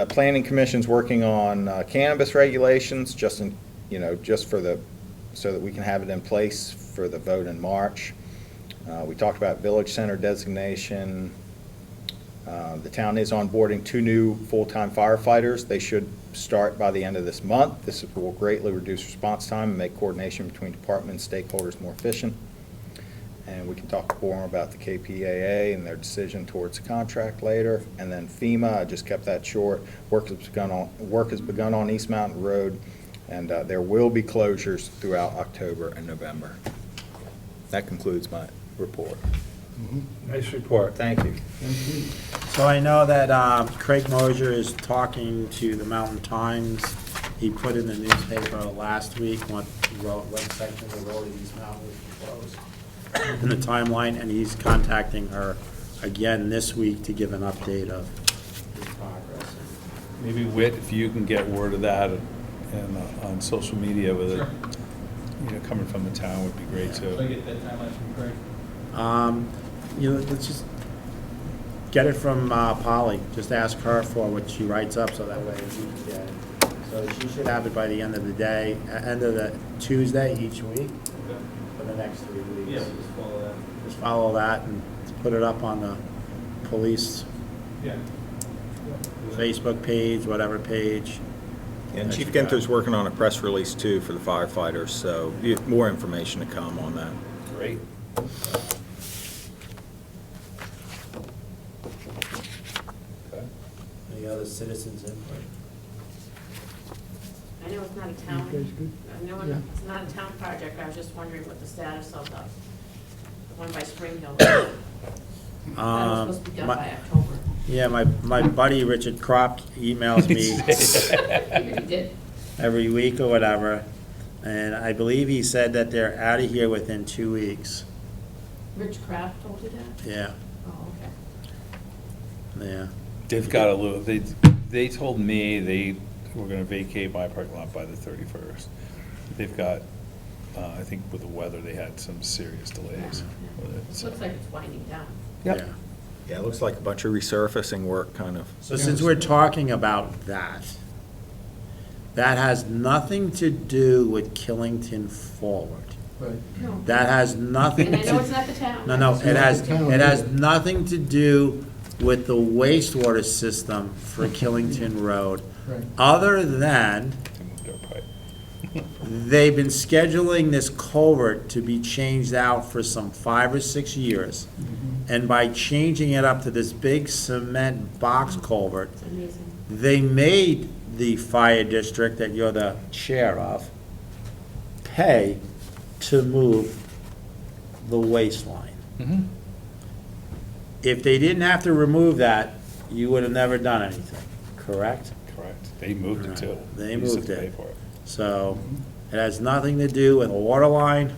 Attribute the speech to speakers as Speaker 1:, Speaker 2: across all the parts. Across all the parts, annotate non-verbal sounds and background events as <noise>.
Speaker 1: Uh, Planning Commission's working on uh, cannabis regulations, just in, you know, just for the, so that we can have it in place for the vote in March. Uh, We talked about Village Center designation. Uh, The town is onboarding two new full-time firefighters. They should start by the end of this month. This will greatly reduce response time and make coordination between departments, and stakeholders more efficient. And we can talk more about the KPAA and their decision towards the contract later. And then FEMA, I just kept that short. Work has begun on, work has begun on East Mountain Road, and uh, there will be closures throughout October and November. That concludes my report.
Speaker 2: Nice report.
Speaker 1: Thank you.
Speaker 3: So I know that um, Craig Mosier is talking to the Mountain Times. He put in the newspaper last week what road, what section of the road in East Mountain was closed in the timeline, and he's contacting her again this week to give an update of his progress.
Speaker 2: Maybe Whit, if you can get word of that and uh, on social media with it,
Speaker 4: Sure.
Speaker 2: you know, coming from the town would be great
Speaker 4: So I
Speaker 2: too.
Speaker 4: get that timeline from Craig.
Speaker 3: Um, You know, let's just get it from uh, Polly, just ask her for what she writes up, so that way we can get it. So she should have it by the end of the day, uh, end of the Tuesday each week
Speaker 4: Okay.
Speaker 3: for the next three
Speaker 4: Yeah,
Speaker 3: weeks.
Speaker 4: just follow that.
Speaker 3: Just follow that and put it up on the police
Speaker 4: Yeah.
Speaker 3: Facebook page, whatever page.
Speaker 1: And Chief Ginther's working on a press release too for the firefighters, so you- more information to come on that.
Speaker 2: Great.
Speaker 3: Any other citizens input?
Speaker 5: I know it's not a town, I know it- it's not a town project, I was just wondering what the status of the, the one by Spring Hill. That was
Speaker 3: Um,
Speaker 5: supposed to be done
Speaker 3: my-
Speaker 5: by October.
Speaker 3: Yeah, my, my buddy Richard Kropp emails
Speaker 1: <laughs>
Speaker 3: me
Speaker 5: You did?
Speaker 3: every week or whatever. And I believe he said that they're out of here within two weeks.
Speaker 5: Rich Kraft told you that?
Speaker 3: Yeah,
Speaker 5: Oh, okay.
Speaker 3: yeah.
Speaker 2: They've got a little, they, they told me they were gonna vacate my parking lot by the thirty-first. They've got, uh, I think with the weather, they had some serious delays with it,
Speaker 5: It
Speaker 2: so.
Speaker 5: looks like it's winding down.
Speaker 3: yeah.
Speaker 1: Yeah, it looks like a bunch of resurfacing work, kind of.
Speaker 3: So since we're talking about that, that has nothing to do with Killington Forward.
Speaker 5: No.
Speaker 3: That has nothing
Speaker 5: And I know it's
Speaker 3: to,
Speaker 5: not the town.
Speaker 3: no, no, it has,
Speaker 6: town,
Speaker 3: it has
Speaker 6: yeah.
Speaker 3: nothing to do with the wastewater system for Killington Road,
Speaker 6: Right.
Speaker 3: other than
Speaker 2: They moved our pipe.
Speaker 3: They've been scheduling this culvert to be changed out for some five or six years. And by changing it up to this big cement box culvert,
Speaker 5: It's amazing.
Speaker 3: they made the fire district that you're the chair of pay to move the waistline.
Speaker 2: Mm-hmm.
Speaker 3: If they didn't have to remove that, you would have never done anything, correct?
Speaker 2: Correct. They moved it too.
Speaker 3: They
Speaker 2: We just
Speaker 3: moved
Speaker 2: have to
Speaker 3: it.
Speaker 2: pay for
Speaker 3: So it has nothing to do with a water line,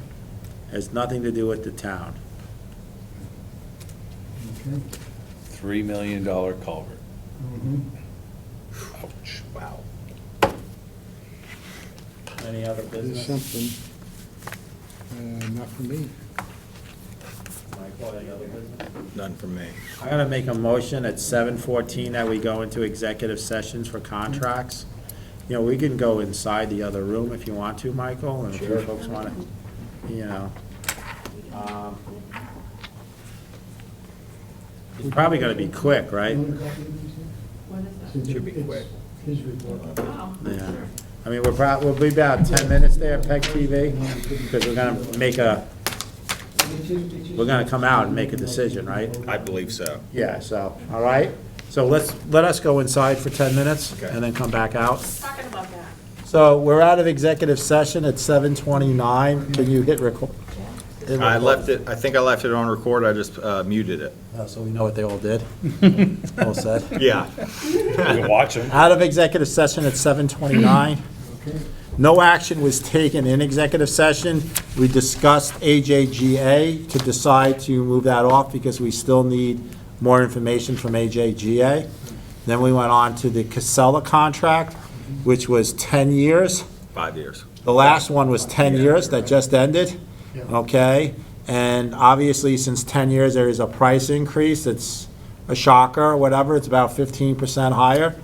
Speaker 3: has nothing to do with the town.
Speaker 6: Okay.
Speaker 2: Three million dollar culvert.
Speaker 6: Mhm.
Speaker 5: Mm-hmm.
Speaker 2: Ouch. Wow.
Speaker 3: Any other
Speaker 6: There's
Speaker 3: business?
Speaker 6: something, uh, not for me.
Speaker 3: Michael, any other business?
Speaker 1: None from me.
Speaker 3: I'm gonna make a motion at seven fourteen that we go into executive sessions for contracts. You know, we can go inside the other room if you want to, Michael, and if you folks wanna, you know. um, It's probably gonna be quick, right?
Speaker 5: What is
Speaker 1: Should be quick.
Speaker 6: His report.
Speaker 5: that? Wow.
Speaker 3: Yeah. I mean, we're probably, we'll be about ten minutes there, PEG TV, because we're gonna make a, we're gonna come out and make a decision, right?
Speaker 1: I believe so.
Speaker 3: Yeah, so, all right? So let's, let us go inside for ten minutes
Speaker 1: Okay.
Speaker 3: and then come back out.
Speaker 5: Talking about that.
Speaker 3: So we're out of executive session at seven twenty-nine. Can you hit record?
Speaker 1: I left it, I think I left it on record, I just uh, muted it.
Speaker 3: So we know what they all did. <laughs> All said.
Speaker 1: Yeah.
Speaker 2: You can watch them.
Speaker 3: Out of executive session at seven twenty-nine.
Speaker 6: Okay.
Speaker 3: No action was taken in executive session. We discussed AJGA to decide to move that off because we still need more information from AJGA. Then we went on to the Casella contract, which was 10 years.
Speaker 1: Five years.
Speaker 3: The last one was 10 years that just ended, okay? And obviously, since 10 years, there is a price increase. It's a shocker or whatever. It's about 15% higher.